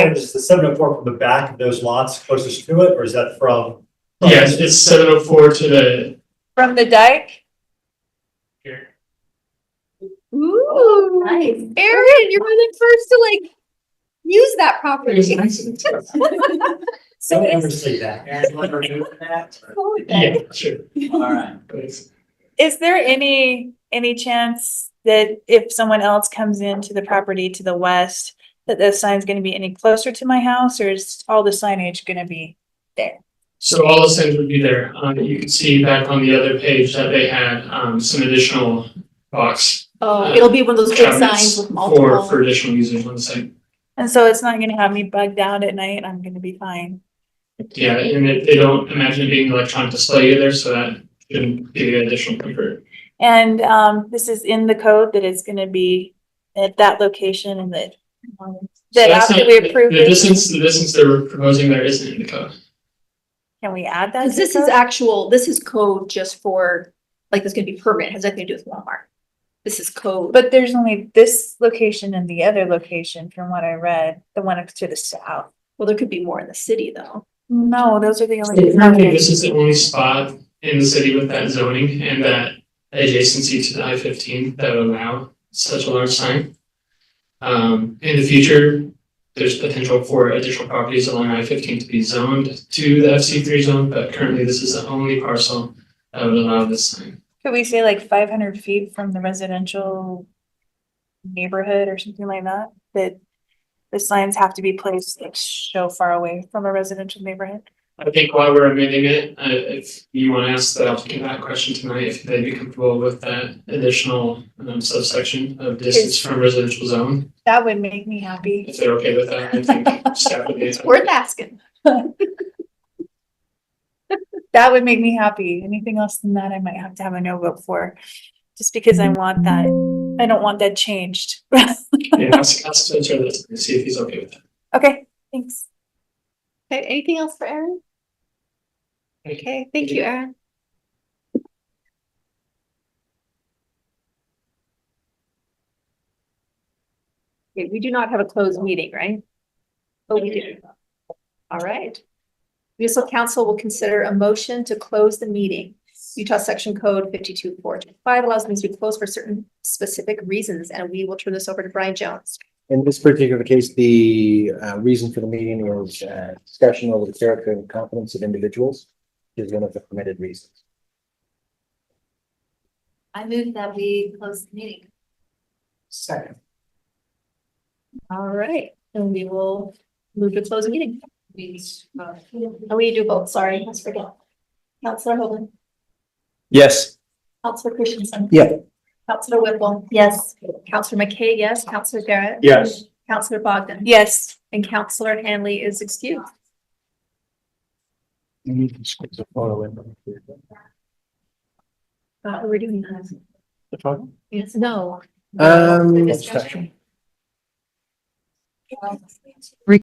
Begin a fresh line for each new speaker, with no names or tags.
frontage, is the seven oh four from the back of those lots closest to it, or is that from?
Yes, it's seven oh four to the
From the dike?
here.
Ooh.
Nice.
Erin, you're one of the first to like use that property. So
Don't
is,
ever say that.
Guys, want to remove that?
Yeah, sure.
All right.
Please.
is there any, any chance that if someone else comes into the property to the west, that the sign's gonna be any closer to my house or is all the signage gonna be?
So all those things would be there. Um, you can see back on the other page that they had, um, some additional box
Oh, it'll be one of those big
cabinets
signs with
for, for
multiple.
additional users on the site.
And so it's not gonna have me bugged out at night. I'm gonna be fine.
Yeah, and they, they don't imagine it being electronic display either, so that shouldn't give you additional comfort.
And, um, this is in the code that it's gonna be at that location and that, um,
So
that
that's
after
not-
we
the-
approve
The
it,
distance, the distance they're proposing there isn't in the code.
can we add that? to
'Cause this
the
is
code?
actual, this is code just for, like, this is gonna be permanent, has nothing to do with Walmart. This is code.
But there's only this location and the other location from what I read, the one up to the south.
Well, there could be more in the city though.
No, those are the only.
I think this is the only spot in the city with that zoning and that adjacency to the I fifteen that would allow such a large sign. Um, in the future, there's potential for additional properties along I fifteen to be zoned to the FC three zone, but currently this is the only parcel that would allow this sign.
Could we say like five hundred feet from the residential neighborhood or something like that? That the signs have to be placed like so far away from a residential neighborhood?
I think while we're amending it, uh, if you want to ask the applicant that question tonight, if they'd be comfortable with that additional um, subsection of distance from residential zone.
That would make me happy.
If they're okay with that, I think staff would be.
It's worth asking.
That would make me happy. Anything else than that, I might have to have a no vote for. Just because I want that, I don't want that changed.
Yeah, ask, ask Spencer that and see if he's okay with that.
Okay, thanks.
Okay, anything else for Erin?
Thank you.
Okay, thank you, Erin. Okay, we do not have a closed meeting, right? Oh, we do. All right. Municipal council will consider a motion to close the meeting. Utah Section Code fifty-two four two five allows meetings to be closed for certain specific reasons, and we will turn this over to Brian Jones.
In this particular case, the uh, reason for the meeting was uh, discussion over the character and competence of individuals is one of the permitted reasons.
I move that we close the meeting. Second. All right, and we will move to close the meeting. Oh, we do both, sorry, I forgot. Counselor Hovind,
Yes.
Counselor Christensen.
Yeah.
Counselor Whipple. Yes. Counselor McKay, yes. Counselor Garrett.
Yes.
Counselor Bogdan.
Yes.
And Counselor Hanley is excused. Uh, we're doing that. Yes, no.
Um,
The discussion.